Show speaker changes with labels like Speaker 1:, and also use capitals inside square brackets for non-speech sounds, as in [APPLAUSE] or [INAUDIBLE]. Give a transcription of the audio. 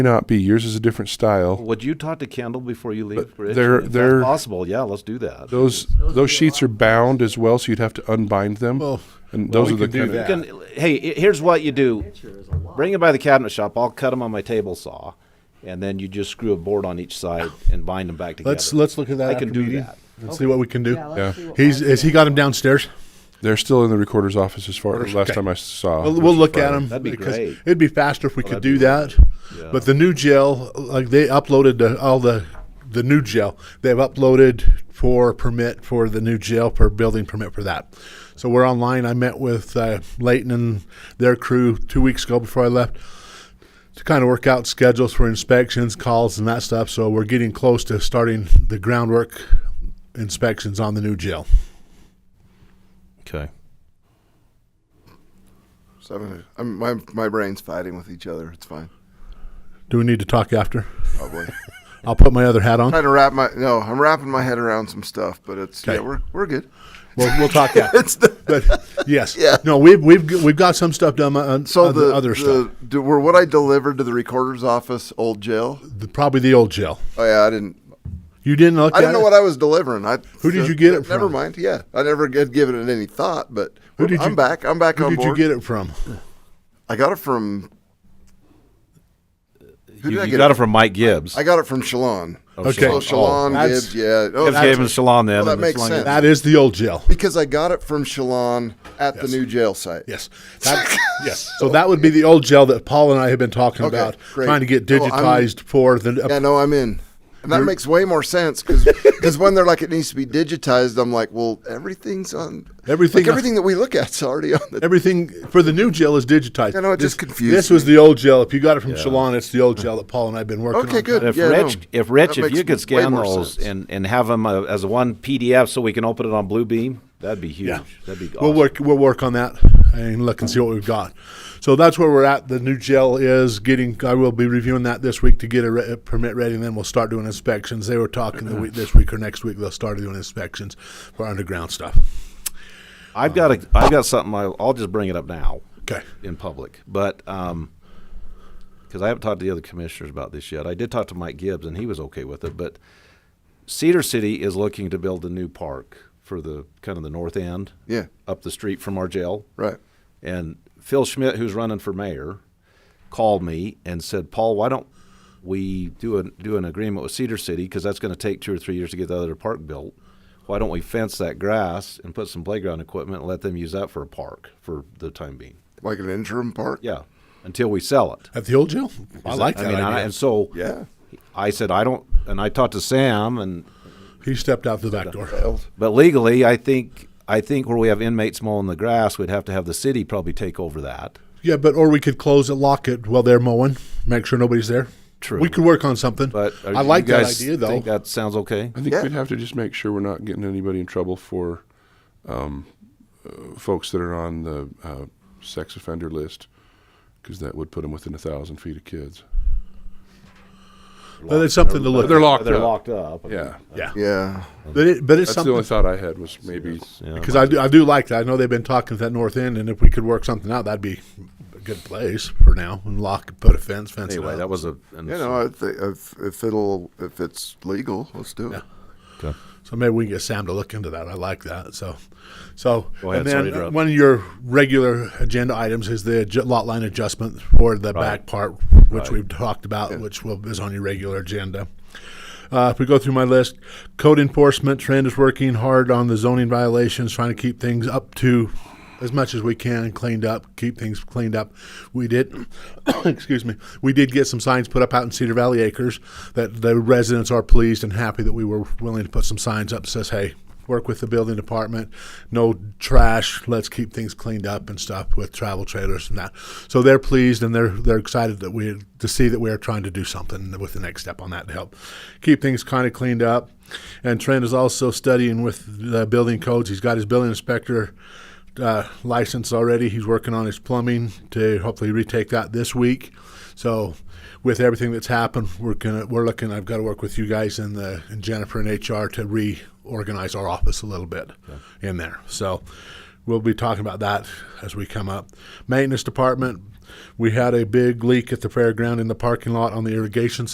Speaker 1: not be. Yours is a different style.
Speaker 2: Would you talk to Kendall before you leave, Rich?
Speaker 1: they're-
Speaker 2: If that's
Speaker 1: they're-
Speaker 2: possible, yeah, let's do that.
Speaker 1: Those those sheets are bound as well, so you'd have to unbind them.
Speaker 3: Well,
Speaker 1: and
Speaker 3: well,
Speaker 1: those
Speaker 3: we
Speaker 1: are the
Speaker 3: could do
Speaker 1: kind
Speaker 3: that.
Speaker 1: of
Speaker 2: Can- hey, i- here's what you do. Bring it by the cabinet shop. I'll cut them on my table saw, and then you just screw a board on each side and bind them back together.
Speaker 3: Let's let's look at that.
Speaker 2: I
Speaker 3: after
Speaker 2: can do
Speaker 3: meeting
Speaker 2: that.
Speaker 3: and see what we can do.
Speaker 4: Yeah, let's see what
Speaker 3: He's
Speaker 4: Mike
Speaker 3: has he got him downstairs?
Speaker 1: they're still in the recorder's office as far as last
Speaker 3: Okay.
Speaker 1: time I saw. uh,
Speaker 3: We'll,
Speaker 1: which
Speaker 3: we'll
Speaker 1: was
Speaker 3: look at
Speaker 1: Friday.
Speaker 3: them.
Speaker 2: That'd be
Speaker 3: because
Speaker 2: great. Oh,
Speaker 3: It'd be faster if we could
Speaker 2: that'd
Speaker 3: do
Speaker 2: be
Speaker 3: that.
Speaker 2: Yeah.
Speaker 3: But the new gel, like they uploaded the, all the the new gel. They've uploaded for permit for the new gel for building permit for that. So we're online. I met with uh, Leighton and their crew two weeks ago before I left to kind of work out schedules for inspections, calls, and that stuff. So we're getting close to starting the groundwork inspections on the new gel.
Speaker 2: Okay.
Speaker 5: So I'm, gonna- I'm my my brain's fighting with each other. It's fine.
Speaker 3: Do we need to talk after?
Speaker 5: Probably [LAUGHS]
Speaker 3: I'll put my other hat on.
Speaker 5: trying to wrap my no. I'm wrapping my head around some stuff, but it's yeah.
Speaker 3: Okay.
Speaker 5: We're we're good.
Speaker 3: We'll, we'll
Speaker 5: [LAUGHS]
Speaker 3: talk after.
Speaker 5: It's the,
Speaker 3: but yes,
Speaker 5: [LAUGHS] Yeah.
Speaker 3: no, we've we've g- we've got some stuff done on
Speaker 5: so
Speaker 3: on
Speaker 5: the,
Speaker 3: other
Speaker 5: the,
Speaker 3: stuff.
Speaker 5: do- were what I delivered to the recorder's office old jail.
Speaker 3: The- probably the old gel.
Speaker 5: Oh yeah, I didn't.
Speaker 3: You didn't look.
Speaker 5: I
Speaker 3: at
Speaker 5: didn't know
Speaker 3: it?
Speaker 5: what I was delivering. I
Speaker 3: Who did you get it
Speaker 5: Never
Speaker 3: from?
Speaker 5: mind. Yeah, I never had given it any thought. But
Speaker 3: Who did
Speaker 5: I'm
Speaker 3: you-
Speaker 5: back. I'm back
Speaker 3: Who
Speaker 5: on
Speaker 3: did
Speaker 5: board.
Speaker 3: you get it from?
Speaker 5: I got it from.
Speaker 2: You,
Speaker 5: Who did I
Speaker 2: you
Speaker 5: get
Speaker 2: got
Speaker 5: it?
Speaker 2: it from Mike Gibbs.
Speaker 5: I got it from Shalon.
Speaker 3: Okay.
Speaker 5: So Shalon
Speaker 3: Oh,
Speaker 5: Gibbs,
Speaker 3: that's-
Speaker 5: yeah. Oh,
Speaker 2: Gibbs gave him
Speaker 5: that's-
Speaker 2: Shalon then.
Speaker 5: Well, that
Speaker 2: and
Speaker 5: makes
Speaker 2: it's long-
Speaker 5: sense.
Speaker 3: That is the old gel.
Speaker 5: because I got it from Shalon at the new jail site.
Speaker 3: Yes.
Speaker 5: [LAUGHS]
Speaker 3: That, yes. So that would be the old gel that Paul and I have been talking
Speaker 5: Okay,
Speaker 3: about,
Speaker 5: great.
Speaker 3: trying to get
Speaker 5: Oh, I'm-
Speaker 3: digitized for the.
Speaker 5: Yeah, no, I'm in. And that makes way more
Speaker 2: [LAUGHS]
Speaker 5: sense because when they're like it needs to be digitized, I'm like, well, everything's on
Speaker 3: Everything-
Speaker 5: Like, everything that we look at's already on
Speaker 2: [LAUGHS]
Speaker 5: the.
Speaker 3: Everything for the new gel is digitized.
Speaker 5: I know, it
Speaker 3: This-
Speaker 5: just confused
Speaker 3: This was
Speaker 5: me.
Speaker 3: the old gel. If you got it from Shalon, it's the old gel that Paul and I have been working on.
Speaker 5: Okay, good.
Speaker 2: If
Speaker 5: yeah,
Speaker 2: Rich,
Speaker 5: no.
Speaker 2: if Rich,
Speaker 5: That
Speaker 2: if
Speaker 5: makes
Speaker 2: you could
Speaker 5: way
Speaker 2: scan
Speaker 5: more
Speaker 2: those
Speaker 5: sense.
Speaker 2: and, and have them uh, as one PDF so we can open it on Bluebeam, that'd be huge. That'd be awesome.
Speaker 3: We'll work. We'll work on that and look and see what we've got. So that's where we're at. The new gel is getting. I will be reviewing that this week to get a, re- a permit ready, and then we'll start doing inspections. They were talking the week, this week or next week they'll start doing inspections for underground stuff.
Speaker 2: I've got a, I've got something. I'll, I'll just bring it up now.
Speaker 3: Okay.
Speaker 2: in public. But um 'cause because I haven't talked to the other commissioners about this yet, I did talk to Mike Gibbs and he was okay with it. But Cedar City is looking to build a new park for the kind of the north end,
Speaker 5: Yeah.
Speaker 2: up the street from our jail.
Speaker 5: Right.
Speaker 2: And Phil Schmidt, who's running for mayor, called me and said, "Paul, why don't we do an do an agreement with Cedar City because that's going to take two or three years to get the other park built? Why don't we fence that grass and put some playground equipment and let them use that for a park for the time being?"
Speaker 5: Like an interim part.
Speaker 2: Yeah, until we sell it.
Speaker 3: At the old gel, I like that.
Speaker 2: I mean,
Speaker 3: idea.
Speaker 2: I, and so
Speaker 5: Yeah.
Speaker 2: I said I don't, and I talked to Sam, and
Speaker 3: he stepped out the back door.
Speaker 2: but legally, I think I think where we have inmates mowing the grass, we'd have to have the city probably take over that.
Speaker 3: Yeah, but or we could close it, lock it while they're mowing, make sure nobody's there.
Speaker 2: True.
Speaker 3: We could work on something.
Speaker 2: But are
Speaker 3: I
Speaker 2: you
Speaker 3: like that
Speaker 2: guys
Speaker 3: idea though.
Speaker 2: Think that sounds okay.
Speaker 1: I think
Speaker 5: Yeah.
Speaker 1: we'd have to just make sure we're not getting anybody in trouble for um, uh, folks that are on the uh, sex offender list, because that would put them within a thousand feet of kids.
Speaker 3: but it's something to look.
Speaker 1: They're
Speaker 3: at.
Speaker 1: locked
Speaker 2: They're
Speaker 1: up.
Speaker 2: locked up. I mean,
Speaker 1: Yeah,
Speaker 3: Yeah.
Speaker 5: Yeah.
Speaker 3: But it, but
Speaker 1: that's
Speaker 3: it's
Speaker 1: the
Speaker 3: something.
Speaker 1: only thought I had was maybe
Speaker 3: Because I do, I do like that. I know they've been talking to that north end, and if we could work something out, that'd be a good place for now. And lock, put a fence, fence. it
Speaker 2: Anyway,
Speaker 3: up.
Speaker 2: that was a. An,
Speaker 5: You know, I think if, if it'll if it's legal, let's do it.
Speaker 3: so maybe we can get Sam to look into that. I like that. So, so
Speaker 2: Go ahead,
Speaker 3: and then
Speaker 2: sorry to interrupt.
Speaker 3: one of your regular agenda items is the adju- lot line adjustment for the back part, which we've talked about, which will, is on your regular agenda. Uh, if we go through my list, code enforcement, Trend is working hard on the zoning violations, trying to keep things up to as much as we can, cleaned up, keep things cleaned up. We did, [COUGHS] excuse me, we did get some signs put up out in Cedar Valley Acres that the residents are pleased and happy that we were willing to put some signs up that says, hey, work with the building department, no trash, let's keep things cleaned up and stuff with travel trailers and that. So they're pleased and they're they're excited that we to see that we are trying to do something with the next step on that to help keep things kind of cleaned up. And Trent is also studying with the building codes. He's got his building inspector uh, license already. He's working on his plumbing to hopefully retake that this week. So, with everything that's happened, we're gonna we're looking. I've got to work with you guys and the and Jennifer and HR to reorganize our office a little bit in there. So, we'll be talking about that as we come up. Maintenance department. We had a big leak at the fairground in the parking lot on the irrigation